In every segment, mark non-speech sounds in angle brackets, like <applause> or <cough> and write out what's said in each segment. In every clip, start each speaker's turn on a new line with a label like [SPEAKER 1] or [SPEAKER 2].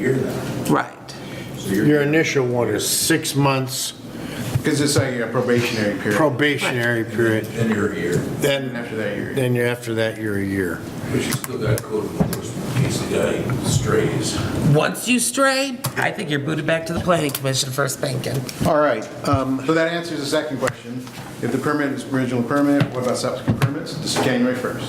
[SPEAKER 1] year now.
[SPEAKER 2] Right.
[SPEAKER 1] So you're,
[SPEAKER 3] Your initial one is six months
[SPEAKER 1] because it's like a probationary period.
[SPEAKER 3] probationary period,
[SPEAKER 1] Then you're a year.
[SPEAKER 3] Then-
[SPEAKER 1] And After that, you're. a year.
[SPEAKER 3] then you- after that, you're a year.
[SPEAKER 4] But you still got code enforcement in case the guy strays.
[SPEAKER 2] Once you stray, I think you're booted back to the planning commission for a spanking.
[SPEAKER 1] All right, um, so that answers the second question. If the permit is original permit, what about subsequent permits? This is January 1st.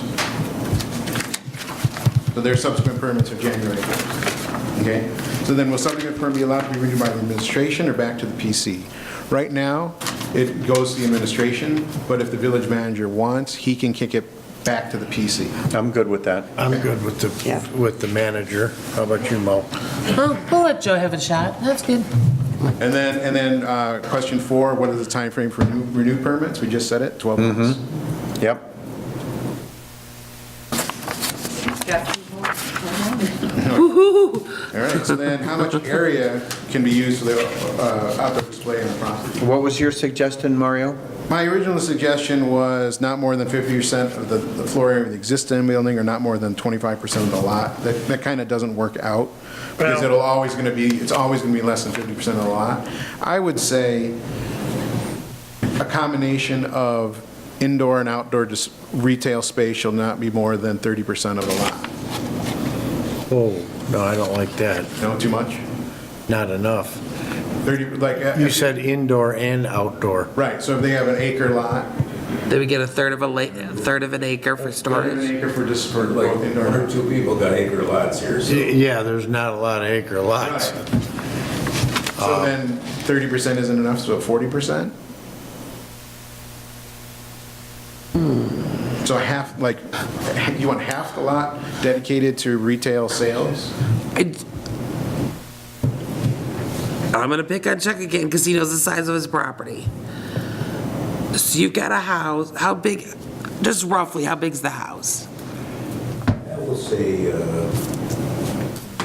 [SPEAKER 1] So their subsequent permits are January 1st. Okay? So then will subsequent permit be allowed to be renewed by the administration or back to the PC? Right now, it goes to the administration, but if the village manager wants, he can kick it back to the PC.
[SPEAKER 5] I'm good with that.
[SPEAKER 3] I'm good with
[SPEAKER 2] Yeah.
[SPEAKER 3] the, with the manager. How about you, Mo?
[SPEAKER 2] Well, we'll let Joe have a shot. That's good.
[SPEAKER 1] And then, and then, uh, question four, what is the timeframe for new- renewed permits? We just said it, 12 months.
[SPEAKER 5] Yep.
[SPEAKER 1] All right, so then how much area can be used for the uh, outdoor display on the property?
[SPEAKER 5] What was your suggestion, Mario?
[SPEAKER 1] My original suggestion was not more than 50% of the the floor area of the existing building or not more than 25% of the lot. That, that kind of doesn't work out because it'll always going to be, it's always going to be less than 50% of the lot. I would say a combination of indoor and outdoor dis- retail space shall not be more than 30% of the lot.
[SPEAKER 3] Oh, no, I don't like that.
[SPEAKER 1] No, too much?
[SPEAKER 3] Not enough.
[SPEAKER 1] 30, like, uh,
[SPEAKER 3] You said indoor and outdoor.
[SPEAKER 1] right, so if they have an acre lot,
[SPEAKER 2] Then we get a third of a la, a third of an acre for
[SPEAKER 1] An
[SPEAKER 2] storage.
[SPEAKER 1] acre for just for
[SPEAKER 4] Like,
[SPEAKER 1] both indoor
[SPEAKER 4] one or
[SPEAKER 1] and
[SPEAKER 4] two people got acre lots here,
[SPEAKER 3] Y-
[SPEAKER 4] so
[SPEAKER 3] Yeah, there's not a lot of acre
[SPEAKER 1] outdoor.
[SPEAKER 3] lots.
[SPEAKER 1] So then thirty percent isn't enough, so forty percent? So half, like, you want half the lot dedicated to retail sales?
[SPEAKER 2] I- I'm gonna pick on Chuck again because he knows the size of his property. So you've got a house, how big, just roughly, how big's the house?
[SPEAKER 4] I will say uh,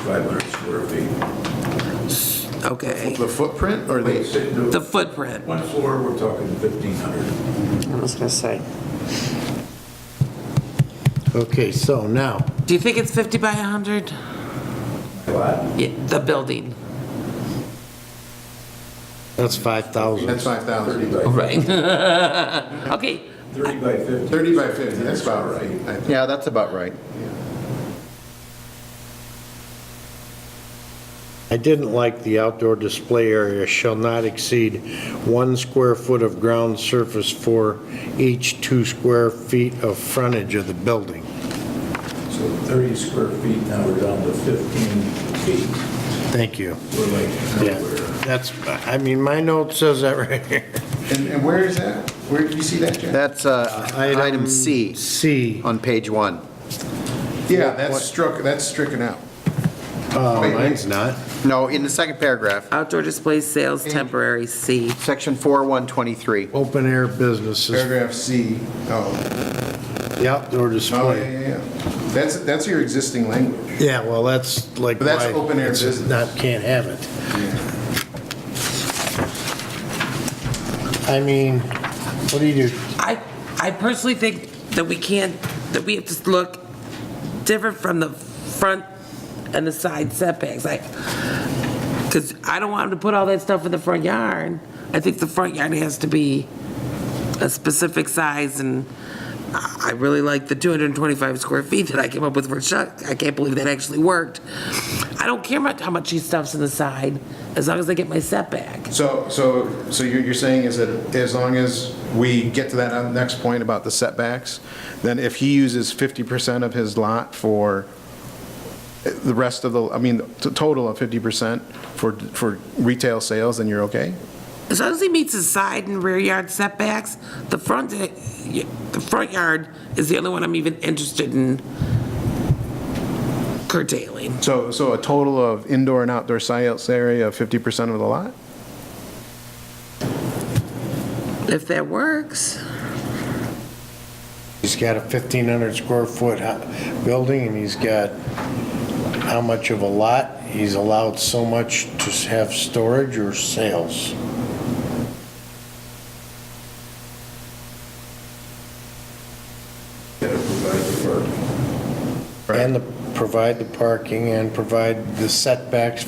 [SPEAKER 4] 500 square feet.
[SPEAKER 2] Okay,
[SPEAKER 1] The footprint or
[SPEAKER 4] Wait,
[SPEAKER 1] the,
[SPEAKER 4] sit-
[SPEAKER 2] the
[SPEAKER 4] the
[SPEAKER 2] footprint.
[SPEAKER 4] one floor, we're talking 1,500.
[SPEAKER 2] I was gonna say.
[SPEAKER 3] Okay, so now,
[SPEAKER 2] Do you think it's 50 by 100?
[SPEAKER 4] Lot?
[SPEAKER 2] Yeah, the building.
[SPEAKER 3] that's 5,000.
[SPEAKER 1] that's five thousand.
[SPEAKER 4] 30 by,
[SPEAKER 2] Right. <laughs> Okay,
[SPEAKER 4] 30 by 50.
[SPEAKER 1] Thirty by fifty, that's about right, I think.
[SPEAKER 5] Yeah, that's about right.
[SPEAKER 3] I didn't like the outdoor display area shall not exceed one square foot of ground surface for each two square feet of frontage of the building.
[SPEAKER 4] So 30 square feet, now we're down to 15 feet.
[SPEAKER 3] Thank you.
[SPEAKER 4] We're like
[SPEAKER 3] Yeah,
[SPEAKER 4] nowhere.
[SPEAKER 3] that's, I mean, my note says that right here.
[SPEAKER 1] And, and where is that? Where, do you see that, Jack?
[SPEAKER 5] That's uh, item C
[SPEAKER 3] C.
[SPEAKER 5] on page one.
[SPEAKER 1] Yeah, that's struck, that's stricken out.
[SPEAKER 3] Oh,
[SPEAKER 1] Wait, wait.
[SPEAKER 3] mine's not.
[SPEAKER 5] No, in the second paragraph,
[SPEAKER 2] outdoor display sales temporary C.
[SPEAKER 5] section 4123.
[SPEAKER 3] Open air businesses,
[SPEAKER 1] Paragraph C, oh,
[SPEAKER 3] the outdoor
[SPEAKER 1] oh, yeah,
[SPEAKER 3] display.
[SPEAKER 1] yeah, yeah. That's, that's your existing language.
[SPEAKER 3] Yeah, well, that's like.
[SPEAKER 1] But that's
[SPEAKER 3] why
[SPEAKER 1] open air
[SPEAKER 3] it's
[SPEAKER 1] business.
[SPEAKER 3] Not, can't have it. I mean, what do you do?
[SPEAKER 2] I, I personally think that we can't, that we have to look different from the front and the side setbacks, like, because I don't want them to put all that stuff in the front yard. I think the front yard has to be a specific size, and I I really like the 225 square feet that I came up with for Chuck. I can't believe that actually worked. I don't care about how much he stuffs in the side, as long as I get my setback.
[SPEAKER 1] So, so, so you're, you're saying is that as long as we get to that uh, next point about the setbacks, then if he uses 50% of his lot for the rest of the, I mean, the total of 50% for, for retail sales, then you're okay?
[SPEAKER 2] As long as he meets his side and rear yard setbacks, the front, eh, the front yard is the only one I'm even interested in curtailing.
[SPEAKER 1] So, so a total of indoor and outdoor sales area of 50% of the lot?
[SPEAKER 2] If that works,
[SPEAKER 3] He's got a 1,500 square foot hu- building, and he's got how much of a lot? He's allowed so much to have storage or sales.
[SPEAKER 4] Gotta provide the parking.
[SPEAKER 3] And the, provide the parking and provide the setbacks